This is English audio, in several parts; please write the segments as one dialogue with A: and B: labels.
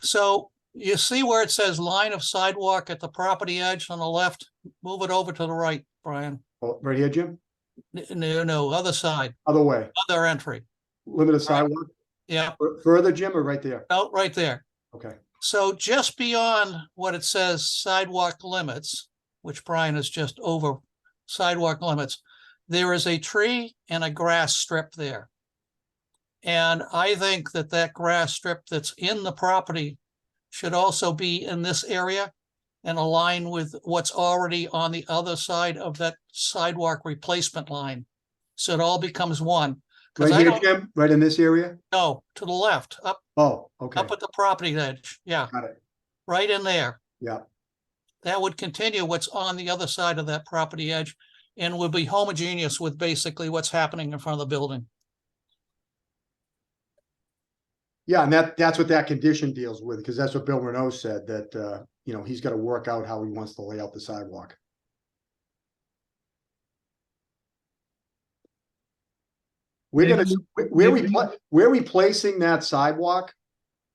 A: So you see where it says line of sidewalk at the property edge on the left? Move it over to the right, Brian.
B: Oh, right here, Jim?
A: N- No, no, other side,
B: Other way,
A: other entry.
B: limited sidewalk,
A: Yeah,
B: Fur- further, Jim, or right there?
A: out right there.
B: Okay,
A: So just beyond what it says sidewalk limits, which Brian is just over sidewalk limits, there is a tree and a grass strip there. And I think that that grass strip that's in the property should also be in this area and align with what's already on the other side of that sidewalk replacement line. So it all becomes one. Because I
B: right here,
A: don't
B: Jim, right in this area?
A: know, to the left, up
B: Oh, okay,
A: up at the property edge, yeah.
B: Got it.
A: Right in there.
B: Yeah.
A: That would continue what's on the other side of that property edge and would be homogeneous with basically what's happening in front of the building.
B: yeah, and that, that's what that condition deals with, because that's what Bill Renault said, that, uh, you know, he's gotta work out how he wants to lay out the sidewalk. We're gonna, where- where we, pla- where we placing that sidewalk?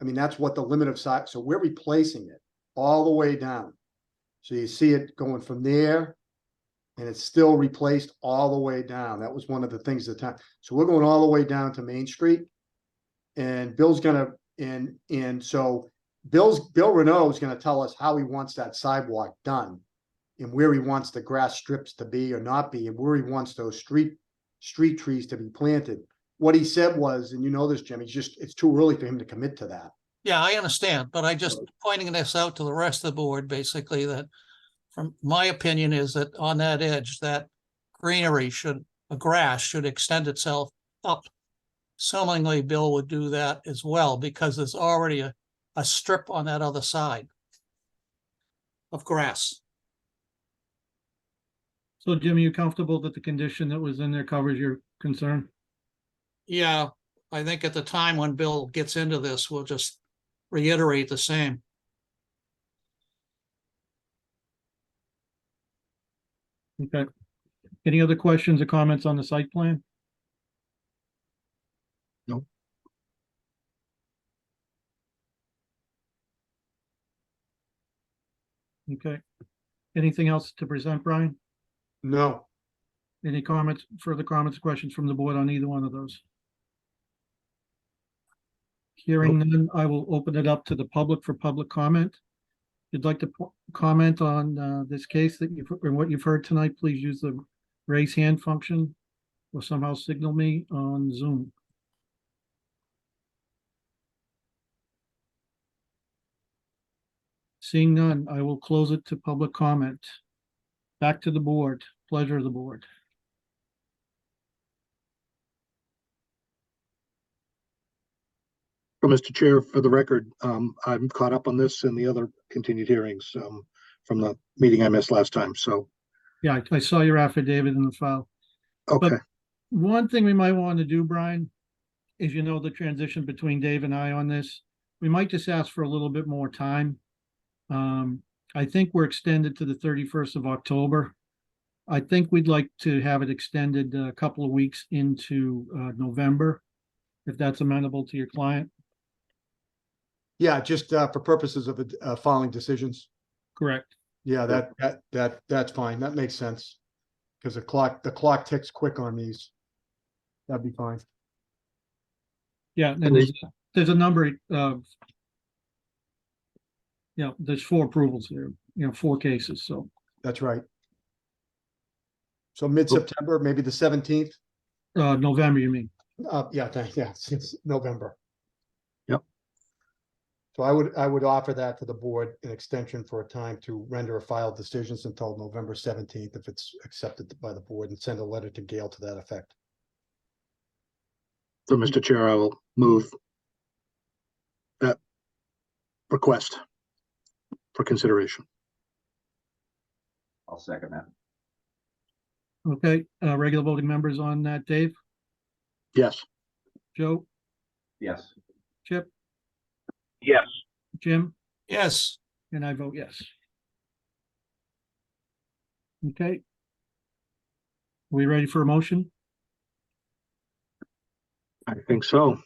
B: I mean, that's what the limit of side, so we're replacing it all the way down. So you see it going from there. And it's still replaced all the way down. That was one of the things the time, so we're going all the way down to Main Street. And Bill's gonna, and, and so Bill's, Bill Renault is gonna tell us how he wants that sidewalk done. And where he wants the grass strips to be or not be, and where he wants those street, street trees to be planted. What he said was, and you know this, Jim, he's just, it's too early for him to commit to that.
A: Yeah, I understand, but I just pointing this out to the rest of the board, basically that from my opinion is that on that edge, that greenery should, the grass should extend itself up. Seemingly Bill would do that as well because there's already a, a strip on that other side of grass.
C: So Jim, are you comfortable that the condition that was in there covers your concern?
A: Yeah, I think at the time when Bill gets into this, we'll just reiterate the same.
C: Okay. Any other questions or comments on the site plan?
D: No.
C: Okay. Anything else to present, Brian?
B: No,
C: Any comments, further comments, questions from the board on either one of those? Hearing none, I will open it up to the public for public comment. If you'd like to po- comment on uh, this case that you've, or what you've heard tonight, please use the raise hand function or somehow signal me on Zoom. Seeing none, I will close it to public comment. Back to the board, pleasure of the board.
D: Well, Mr. Chair, for the record, um, I'm caught up on this and the other continued hearings, um, from the meeting I missed last time, so,
C: Yeah, I- I saw your affidavit in the file.
D: okay.
C: One thing we might want to do, Brian, is you know the transition between Dave and I on this, we might just ask for a little bit more time. Um, I think we're extended to the thirty-first of October. I think we'd like to have it extended a couple of weeks into uh November, if that's amenable to your client.
B: yeah, just, uh, for purposes of, uh, following decisions.
C: Correct.
B: Yeah, that, that, that, that's fine. That makes sense. Cause the clock, the clock ticks quick on these. That'd be fine.
C: Yeah, and there's, there's a number of you know, there's four approvals here, you know, four cases, so.
B: That's right. So mid-September, maybe the seventeenth,
C: Uh, November, you mean?
B: uh, yeah, thank- yeah, since November.
D: Yep.
B: So I would, I would offer that to the board, an extension for a time to render a file decisions until November seventeenth, if it's accepted by the board and send a letter to Gail to that effect.
D: So, Mr. Chair, I will move that request for consideration.
E: I'll second that.
C: Okay, uh, regular voting members on that, Dave,
D: Yes,
C: Joe,
E: Yes.
C: Chip,
E: Yes.
C: Jim,
A: Yes,
C: and I vote yes. Okay. We ready for a motion?
D: I think so.